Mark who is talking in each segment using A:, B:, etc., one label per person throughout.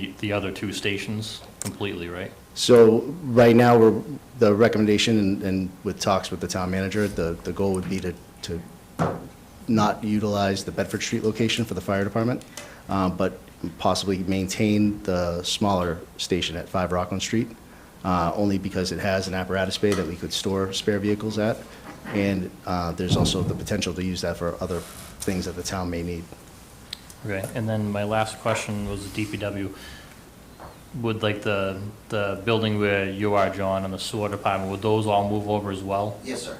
A: the- the other two stations completely, right?
B: So right now, we're, the recommendation and- and with talks with the town manager, the, the goal would be to, to not utilize the Bedford Street location for the fire department, uh, but possibly maintain the smaller station at 5 Rockland Street, uh, only because it has an apparatus bay that we could store spare vehicles at. And uh, there's also the potential to use that for other things that the town may need.
A: Okay, and then my last question was DPW. Would like the, the building where you are, John, and the sewer department, would those all move over as well?
C: Yes, sir.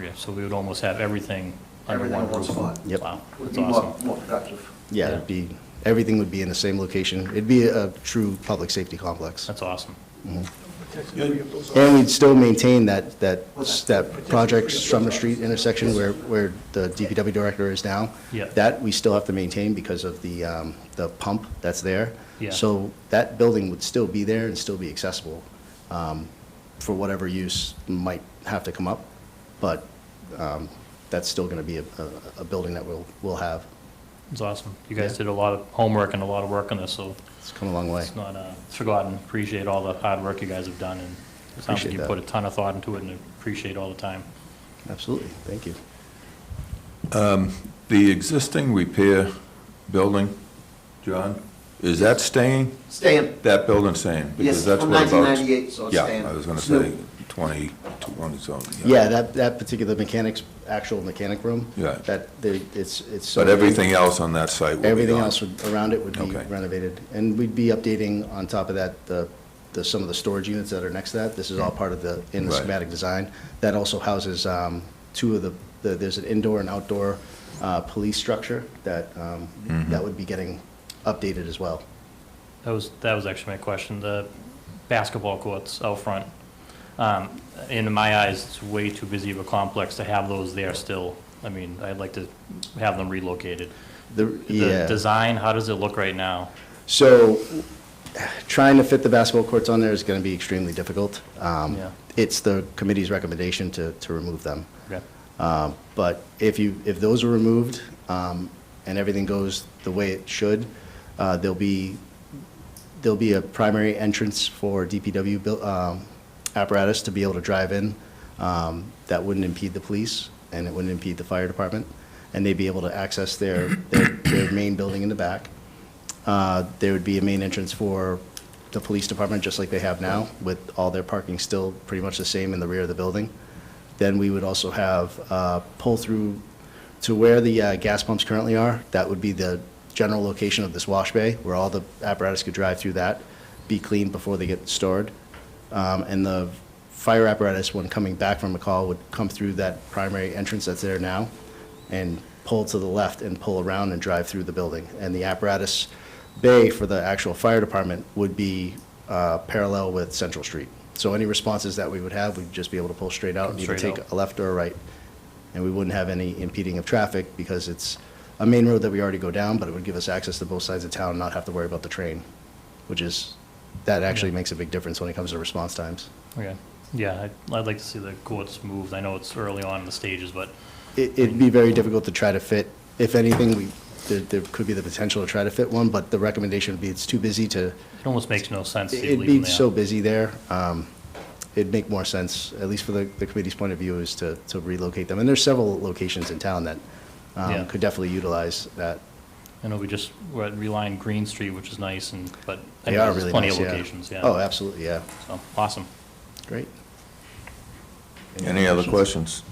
A: Okay, so we would almost have everything under
C: Everything
A: one
C: in one
A: roof.
C: spot.
B: Yep.
A: Wow,
C: Would
A: that's
C: be more,
A: awesome.
C: more productive.
B: Yeah, it'd be, everything would be in the same location. It'd be a true public safety complex.
A: That's awesome.
B: And we'd still maintain that, that, that project Summer Street intersection where, where the DPW director is now.
A: Yeah.
B: That we still have to maintain because of the, um, the pump that's there.
A: Yeah.
B: So that building would still be there and still be accessible, um, for whatever use might have to come up. But, um, that's still gonna be a, a, a building that we'll, we'll have.
A: It's awesome. You guys
B: Yeah.
A: did a lot of homework and a lot of work on this, so
B: It's come a long way.
A: it's not uh, forgotten. Appreciate all the hard work you guys have done, and it sounds
B: Appreciate
A: like you
B: that.
A: put a ton of thought into it, and appreciate all the time.
B: Absolutely. Thank you.
D: The existing repair building, John, is that staying?
C: Staying,
D: That building staying?
C: yes,
D: Because that's
C: from
D: what about-
C: 1998, so it's staying.
D: Yeah, I was going to
C: Snoop.
D: say 20, 20 something.
B: Yeah, that, that particular mechanics, actual mechanic room.
D: Yeah.
B: That, they, it's, it's.
D: But everything else on that site will be
B: Everything
D: gone.
B: else would- around it would be
D: Okay.
B: renovated. And we'd be updating on top of that, the, the, some of the storage units that are next to that. This is all part of the, in the
D: Right.
B: schematic design. That also houses um, two of the, the- there's an indoor and outdoor uh, police structure that, um,
D: Mm-hmm.
B: that would be getting updated as well.
A: That was, that was actually my question, the basketball courts out front. Um, In my eyes, it's way too busy of a complex to have those there still. I mean, I'd like to have them relocated.
B: The,
A: The
B: yeah.
A: design, how does it look right now?
B: So trying to fit the basketball courts on there is going to be extremely difficult. Um,
A: Yeah.
B: It's the committee's recommendation to, to remove them.
A: Okay.
B: Um, But if you, if those are removed um, and everything goes the way it should, uh, there'll be, there'll be a primary entrance for DPW buil- um, apparatus to be able to drive in. um, That wouldn't impede the police and it wouldn't impede the fire department. And they'd be able to access their, their, their main building in the back. Uh, There would be a main entrance for the police department, just like they have now, with all their parking still pretty much the same in the rear of the building. Then we would also have uh, pull-through to where the uh, gas pumps currently are. That would be the general location of this wash bay, where all the apparatus could drive through that, be cleaned before they get stored. Um, And the fire apparatus, when coming back from a call, would come through that primary entrance that's there now and pull to the left and pull around and drive through the building. And the apparatus bay for the actual fire department would be uh, parallel with Central Street. So any responses that we would have, we'd just be able to pull straight out and either
A: Straight out.
B: take a left or a right. And we wouldn't have any impeding of traffic because it's a main road that we already go down, but it would give us access to both sides of town and not have to worry about the train, which is, that actually
A: Yeah.
B: makes a big difference when it comes to response times.
A: Okay, yeah, I'd- I'd like to see the courts moved. I know it's early on in the stages, but
B: It- It'd be very difficult to try to fit, if anything, we, there, there could be the potential to try to fit one, but the recommendation would be it's too busy to,
A: it almost makes no sense to
B: it'd
A: leave them
B: be
A: there.
B: so busy there. um, It'd make more sense, at least for the, the committee's point of view, is to, to relocate them. And there's several locations in town that um,
A: Yeah.
B: could definitely utilize that.
A: I know we just, we're at Reline Green Street, which is nice, and, but I
B: They
A: know
B: are
A: there's
B: really
A: plenty of
B: nice, yeah.
A: locations, yeah.
B: Oh, absolutely, yeah.
A: So, Awesome.
B: Great.
D: Any other questions?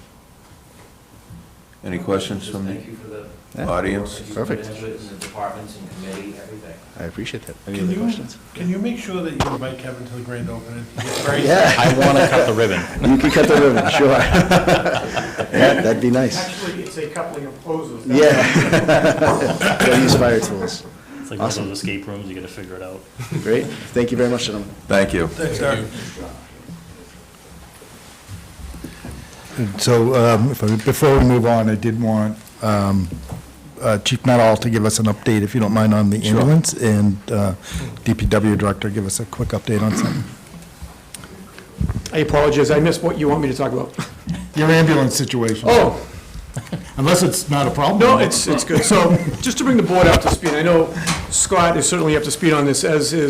D: Any questions from
E: Thank
D: the
E: you for the.
B: Yeah.
D: audience?
B: Perfect.
E: You've been into it in the departments and committee, everything.
B: I appreciate that. Any
F: Can
B: other
F: you,
B: questions?
F: can you make sure that you invite Kevin to the grand opening? He's very-
B: Yeah,
A: I want to cut the ribbon.
B: you can cut the ribbon, sure. Yeah, That'd be nice.
G: Actually, it's a coupling of poses.
B: Yeah. Don't use fire tools.
A: It's like one of
B: Awesome.
A: those escape rooms, you got to figure it out.
B: Great. Thank you very much, gentlemen.
D: Thank you.
F: Thanks, Derek.
H: So um, if I- before we move on, I did want um, uh, Chief Nuttall to give us an update, if you don't mind, on the ambulance, and uh, DPW Director give us a quick update on something.
G: I apologize, I missed what you want me to talk about.
H: Your ambulance situation.
G: Oh,
H: Unless it's not a problem.
G: No, it's, it's good. So, just to bring the board up to speed, I know Scott is certainly up to speed on this, as is